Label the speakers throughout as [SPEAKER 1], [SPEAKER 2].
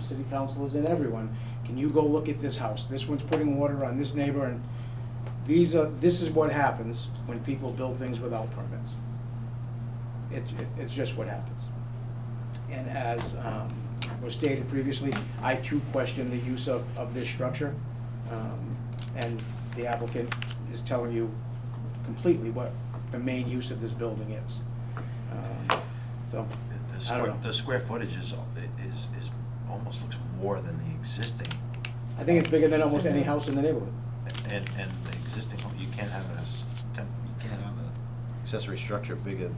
[SPEAKER 1] city councilors and everyone, can you go look at this house? This one's putting water on this neighbor, and these are, this is what happens when people build things without permits. It, it- it's just what happens. And as um, was stated previously, I too question the use of, of this structure. Um, And the applicant is telling you completely what the main use of this building is. Um, So,
[SPEAKER 2] The-
[SPEAKER 1] I
[SPEAKER 2] The
[SPEAKER 1] don't
[SPEAKER 2] square,
[SPEAKER 1] know.
[SPEAKER 2] the square footage is, is, is, almost looks more than the existing,
[SPEAKER 1] I think it's bigger than almost any house in the neighborhood.
[SPEAKER 2] and, and the existing, home. you can't have a, s- temp- you can't have a accessory structure bigger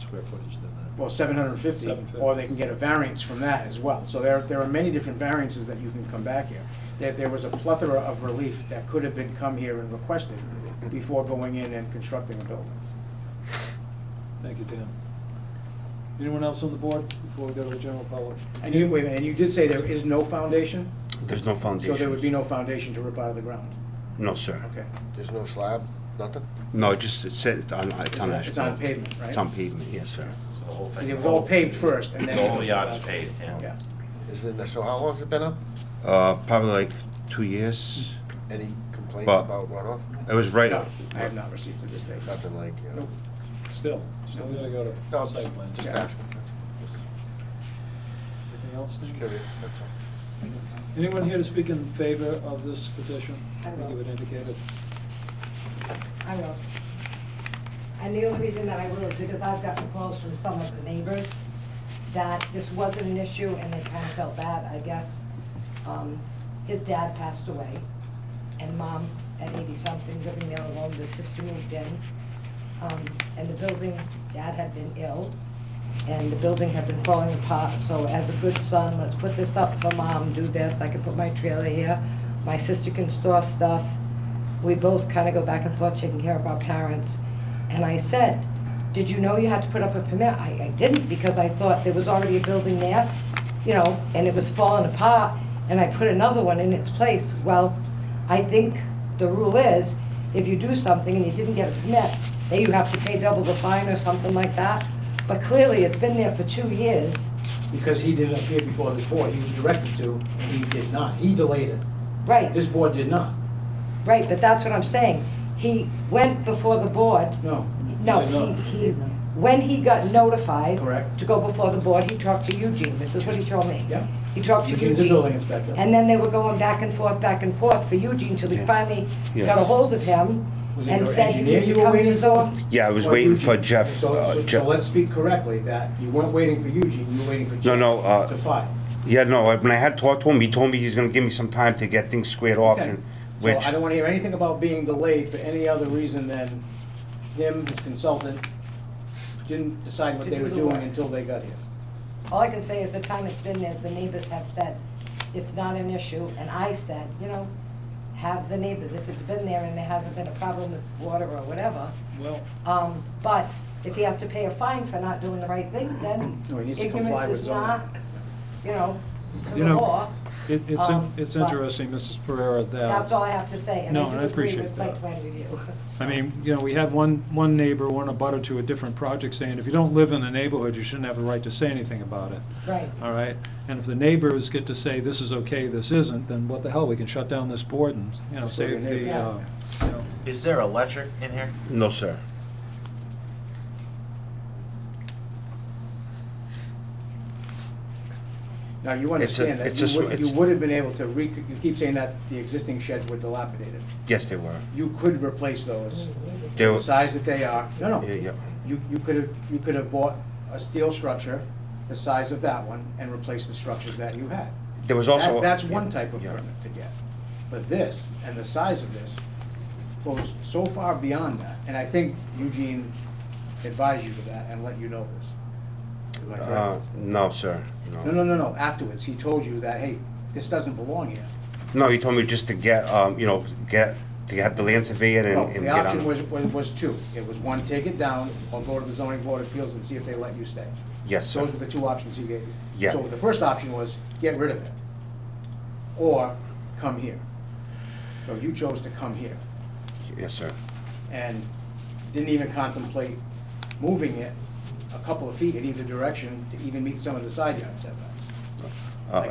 [SPEAKER 2] square footage than the.
[SPEAKER 1] Well, seven hundred and fifty,
[SPEAKER 3] 750.
[SPEAKER 1] or they can get a variance from that as well. So there, there are many different variances that you can come back here. There, there was a plethora of relief that could have been come here and requested before going in and constructing a building.
[SPEAKER 3] Thank you, Dan. Anyone else on the board before we go to the general public?
[SPEAKER 1] And you, wait a minute, and you did say there is no foundation,
[SPEAKER 4] There's no
[SPEAKER 1] so
[SPEAKER 4] foundation.
[SPEAKER 1] there would be no foundation to rip out of the ground?
[SPEAKER 4] No, sir.
[SPEAKER 1] Okay.
[SPEAKER 5] There's no slab, nothing?
[SPEAKER 4] No, just, it's, it's on, it's on
[SPEAKER 1] It's- It's on
[SPEAKER 4] asphalt.
[SPEAKER 1] pavement, right?
[SPEAKER 4] It's on pavement, yes, sir.
[SPEAKER 2] So the whole
[SPEAKER 1] 'Cause
[SPEAKER 2] thing-
[SPEAKER 1] it was all paved first, and then...
[SPEAKER 2] The whole yard is paved, yeah.
[SPEAKER 1] Yeah.
[SPEAKER 5] Is it, so how long's it been up?
[SPEAKER 4] Uh, probably like two years.
[SPEAKER 5] Any complaints
[SPEAKER 4] Well-
[SPEAKER 5] about runoff?
[SPEAKER 4] It was right
[SPEAKER 1] No,
[SPEAKER 4] up.
[SPEAKER 1] I have not received it this day.
[SPEAKER 5] Nothing like, you know?
[SPEAKER 1] Nope.
[SPEAKER 3] Still, still gotta go to
[SPEAKER 5] No, I'm just,
[SPEAKER 3] site plan.
[SPEAKER 5] just
[SPEAKER 1] Yeah.
[SPEAKER 5] asking, that's all.
[SPEAKER 3] Anything else,
[SPEAKER 5] Just
[SPEAKER 3] Steve?
[SPEAKER 5] curious, that's all.
[SPEAKER 3] Anyone here to speak in favor of this petition?
[SPEAKER 6] I will.
[SPEAKER 3] think You had indicated.
[SPEAKER 6] I will. And the only reason that I will is because I've gotten calls from some of the neighbors that this wasn't an issue and they kind of felt bad, I guess. Um, His dad passed away and mom at eighty-something living there alone, the sister moved in. Um, And the building, dad had been ill and the building had been falling apart. So as a good son, let's put this up for mom, do this, I can put my trailer here, my sister can store stuff. We both kind of go back and forth taking care of our parents. And I said, did you know you had to put up a permit? I, I didn't because I thought there was already a building there, you know, and it was falling apart and I put another one in its place. Well, I think the rule is, if you do something and you didn't get a permit, then you have to pay double the fine or something like that. But clearly, it's been there for two years.
[SPEAKER 7] because he didn't appear before this board. He was directed to, and he did not. He delayed it. This
[SPEAKER 6] Right,
[SPEAKER 7] board did not.
[SPEAKER 6] right, but that's what I'm saying. He went before the board.
[SPEAKER 7] No.
[SPEAKER 6] No,
[SPEAKER 7] He did
[SPEAKER 6] he,
[SPEAKER 7] not.
[SPEAKER 6] he, when he got notified.
[SPEAKER 7] Correct.
[SPEAKER 6] To go before the board, he talked to Eugene. This is what he told me.
[SPEAKER 7] Yeah.
[SPEAKER 6] He talked to Eugene.
[SPEAKER 7] Eugene's the building inspector.
[SPEAKER 6] And then they were going back and forth, back and forth for Eugene till he
[SPEAKER 4] Yeah.
[SPEAKER 6] finally
[SPEAKER 4] Yes.
[SPEAKER 6] got a hold of him
[SPEAKER 7] Was it
[SPEAKER 6] and
[SPEAKER 7] your
[SPEAKER 6] said, you
[SPEAKER 7] engineer
[SPEAKER 6] need to
[SPEAKER 7] you were
[SPEAKER 6] come to
[SPEAKER 7] waiting
[SPEAKER 6] the.
[SPEAKER 7] for?
[SPEAKER 4] Yeah, I was
[SPEAKER 7] Or
[SPEAKER 4] waiting
[SPEAKER 7] Eugene.
[SPEAKER 4] for Jeff,
[SPEAKER 7] So-
[SPEAKER 4] uh,
[SPEAKER 7] so-
[SPEAKER 4] Jeff-
[SPEAKER 7] So let's speak correctly, that you weren't waiting for Eugene, you were waiting for Jeff.
[SPEAKER 4] no, uh,
[SPEAKER 7] To file.
[SPEAKER 4] Yeah, no, I- when I had talked to him, he told me he's gonna give me some time to get things squared off
[SPEAKER 1] Okay.
[SPEAKER 4] and,
[SPEAKER 1] So
[SPEAKER 4] which,
[SPEAKER 1] I don't want to hear anything about being delayed for any other reason than him, his consultant, didn't decide what they
[SPEAKER 7] Didn't
[SPEAKER 1] were
[SPEAKER 7] do the
[SPEAKER 1] doing
[SPEAKER 7] work.
[SPEAKER 1] until they got here.
[SPEAKER 6] All I can say is the time it's been there, the neighbors have said, it's not an issue, and I said, you know, have the neighbors, if it's been there and there hasn't been a problem with water or whatever.
[SPEAKER 3] Well,
[SPEAKER 6] Um, but if he has to pay a fine for not doing the right thing, then
[SPEAKER 1] No, he needs to comply
[SPEAKER 6] ignorance
[SPEAKER 1] with
[SPEAKER 6] is
[SPEAKER 1] zoning.
[SPEAKER 6] not, you know, to
[SPEAKER 3] You
[SPEAKER 6] the
[SPEAKER 3] know,
[SPEAKER 6] law.
[SPEAKER 3] it, it's, in-
[SPEAKER 6] Um,
[SPEAKER 3] it's
[SPEAKER 6] but-
[SPEAKER 3] interesting, Mrs. Pereira, that.
[SPEAKER 6] That's all I have to say, and
[SPEAKER 3] No,
[SPEAKER 6] I
[SPEAKER 3] and
[SPEAKER 6] do
[SPEAKER 3] I
[SPEAKER 6] agree
[SPEAKER 3] appreciate
[SPEAKER 6] with site
[SPEAKER 3] that.
[SPEAKER 6] plan review.
[SPEAKER 3] I mean, you know, we had one, one neighbor, one abutter to a different project saying, if you don't live in the neighborhood, you shouldn't have a right to say anything about it.
[SPEAKER 6] Right.
[SPEAKER 3] All right? And if the neighbors get to say, this is okay, this isn't, then what the hell, we can shut down this board and, you know,
[SPEAKER 1] Just let
[SPEAKER 3] save
[SPEAKER 1] the
[SPEAKER 3] the,
[SPEAKER 1] neighbors-
[SPEAKER 3] uh, you know.
[SPEAKER 2] Is there electric in here?
[SPEAKER 4] no, sir.
[SPEAKER 1] Now, you
[SPEAKER 4] It's a-
[SPEAKER 1] understand that
[SPEAKER 4] it's a sw-
[SPEAKER 1] you would, you
[SPEAKER 4] it's-
[SPEAKER 1] would have been able to re, you keep saying that the existing sheds were dilapidated.
[SPEAKER 4] Yes, they were.
[SPEAKER 1] You could replace those,
[SPEAKER 4] They were,
[SPEAKER 1] the size that they are, no,
[SPEAKER 4] yeah,
[SPEAKER 1] no.
[SPEAKER 4] yeah.
[SPEAKER 1] You, you could have, you could have bought a steel structure, the size of that one, and replaced the structures that you had.
[SPEAKER 4] There was
[SPEAKER 1] That-
[SPEAKER 4] also. uh,
[SPEAKER 1] That's one type of
[SPEAKER 4] Yeah.
[SPEAKER 1] permit to get. But this, and the size of this, goes so far beyond that. And I think Eugene advised you to that and let you know this. Am I correct?
[SPEAKER 4] Uh, no, sir,
[SPEAKER 1] No, no, no, no, afterwards, he told you that, hey, this doesn't belong here.
[SPEAKER 4] No, he told me just to get, um, you know, get, to have the land surveyed and,
[SPEAKER 1] Well,
[SPEAKER 4] and
[SPEAKER 1] the
[SPEAKER 4] get on.
[SPEAKER 1] option was, was, was two. It was one, take it down, or go to the zoning board of appeals and see if they let you stay.
[SPEAKER 4] Yes, sir.
[SPEAKER 1] Those were the two options he gave you.
[SPEAKER 4] Yeah.
[SPEAKER 1] So the first option was get rid of it, or come here. So you chose to come here.
[SPEAKER 4] Yes, sir.
[SPEAKER 1] and didn't even contemplate moving it a couple of feet in either direction to even meet some of the side yard setbacks.
[SPEAKER 4] Uh,